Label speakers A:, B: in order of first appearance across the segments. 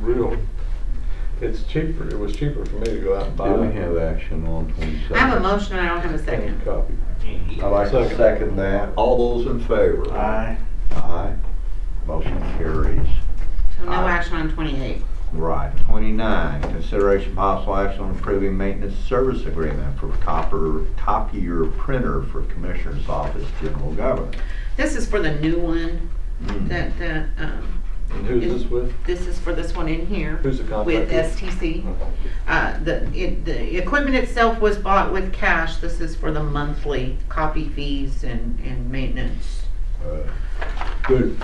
A: real, it's cheaper, it was cheaper for me to go out and buy.
B: Do we have action on twenty-seven?
C: I have a motion and I don't have a
A: and
C: second.
A: Copy.
B: I'd like to
A: Second.
B: second that. All those in favor?
D: Aye.
B: Aye. Motion carries.
C: So no
B: Aye.
C: action on twenty-eight.
B: Right. Twenty-nine, consideration possible action on approving maintenance service agreement for copper, copier printer for Commissioner's Office General Government.
C: This is for the new one
B: Mm.
C: that, that, um,
A: And who's this with?
C: this is for this one in here.
A: Who's Hmm. the Oh,
C: With
A: contractor?
C: STC. Uh, the, it, the equipment itself was bought with cash. This is for the monthly copy fees and, and maintenance.
B: Uh,
A: Good.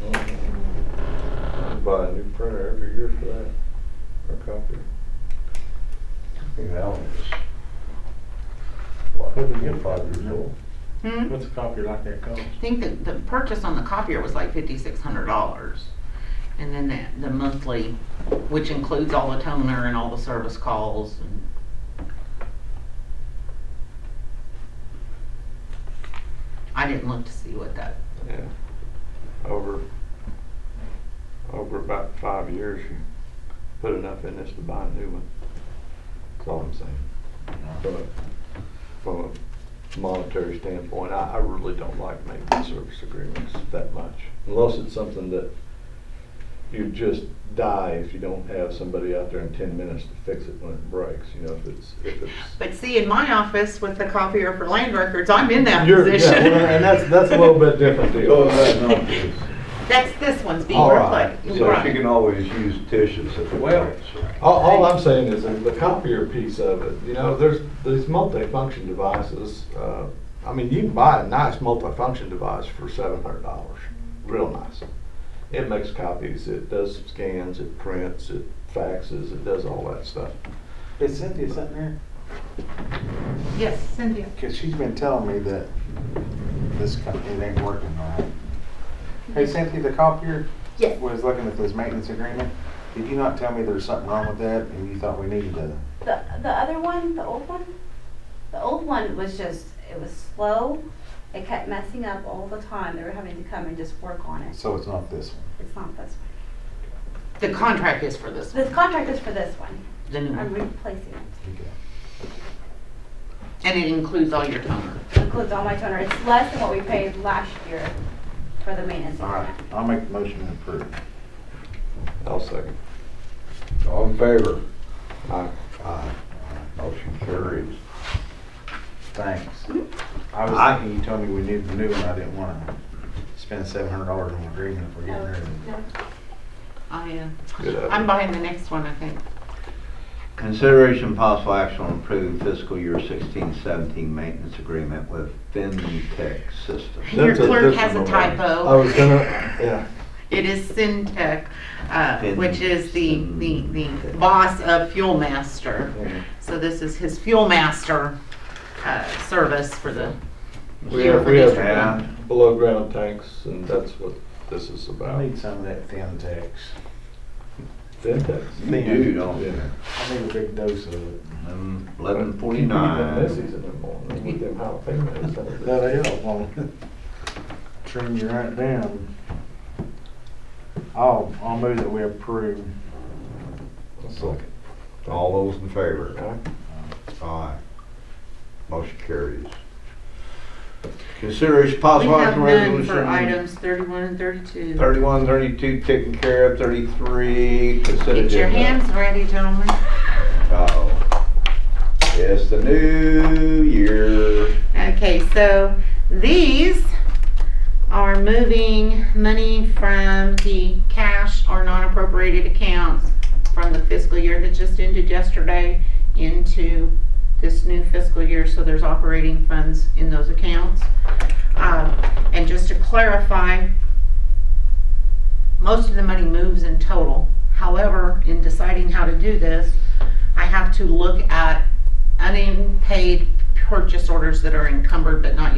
A: Mm-hmm. Buy a new printer every year for that, or copier.
B: That one is, what,
D: What did you-
B: five years old?
C: Hmm?
D: What's a copier like that cost?
C: I think that the purchase on the copier was like fifty-six hundred dollars. And then that, the monthly, which includes all the toner and all the service calls and I didn't look to see what that,
A: Yeah, over, over about five years, you put enough in this to buy a new one. That's all I'm saying. From a, from a monetary standpoint, I, I really don't like making service agreements that much. Unless it's something that you just die if you don't have somebody out there in ten minutes to fix it when it breaks, you know, if it's, if it's.
C: but see, in my office with the copier for land records, I'm in that
A: You're- yeah,
C: position.
A: well, And that's, that's a little bit different
B: Oh,
A: deal.
C: That's, this one's being
B: All right,
C: replaced.
B: so she can always use tissues if it
A: Well-
B: breaks.
A: All, all I'm saying is that the copier piece of it, you know, there's these multi-function devices. Uh, I mean, you can buy a nice multi-function device for seven hundred dollars, real nice. It makes copies, it does scans, it prints, it faxes, it does all that stuff.
D: Is Cynthia sitting there?
C: Yes, Cynthia.
D: Cause she's been telling me that this company, it ain't working right. Hey Cynthia, the copier
C: Yes.
D: was looking at this maintenance agreement. Did you not tell me there was something wrong with that and you thought we needed to?
E: The, the other one, the old one, the old one was just, it was slow. It kept messing up all the time. They were having to come and just work on it.
D: So it's not this one.
E: It's not this one.
C: The contract is for this one,
E: This contract is for this one.
C: the new
E: I'm
C: one,
E: replacing it.
D: Okay.
C: and it includes all your toner.
E: It includes all my toner. It's less than what we paid last year for the maintenance.
D: All right, I'll make the motion to approve.
A: I'll second.
B: All in favor?
A: Aye.
B: Aye. Motion carries.
D: Thanks. I was
B: I-
D: thinking you told me we needed a new one. I didn't wanna spend seven hundred dollars on an agreement if we're getting
E: No,
D: rid of it.
E: no.
C: I, uh,
A: Good idea.
C: I'm buying the next one, I think.
B: Consideration and possible action on approving fiscal year 16-17 maintenance agreement with FinTech Systems.
C: Your
A: That's a
C: clerk has a
A: different one.
C: typo.
A: I was gonna, yeah,
C: It is Syntec, uh, which is the, the, the
B: Syntec.
C: boss of Fuel Master. So this is his Fuel Master, uh, service for the,
A: We
C: here
A: have-
C: for
A: we have-
C: District One.
B: Yeah.
A: below ground tanks and that's what this is
D: I
A: about.
D: need some of that thin text.
A: Dentex.
B: You do, don't you?
A: Yeah.
D: I need a big dose of it.
B: Eleven
A: Even Missy's
B: forty-nine.
A: in the morning with them jalapenos.
D: That'll help on, trim you right down. I'll, I'll move that we approve.
A: Second.
B: All those in favor?
A: Okay.
B: Aye. Motion carries. Consideration
C: we
B: possible
C: have
B: action
C: none
B: resolution.
C: for items thirty-one and thirty-two.
B: Thirty-one, thirty-two taken care of, thirty-three considered.
C: Get your hands ready, gentlemen.
B: oh It's the new year.
C: Okay, so these are moving money from the cash or non-appropriated accounts from the fiscal year that just ended yesterday into this new fiscal year, so there's operating funds in those accounts. Um, And just to clarify, most of the money moves in total. However, in deciding how to do this, I have to look at unpaid purchase orders that are encumbered but not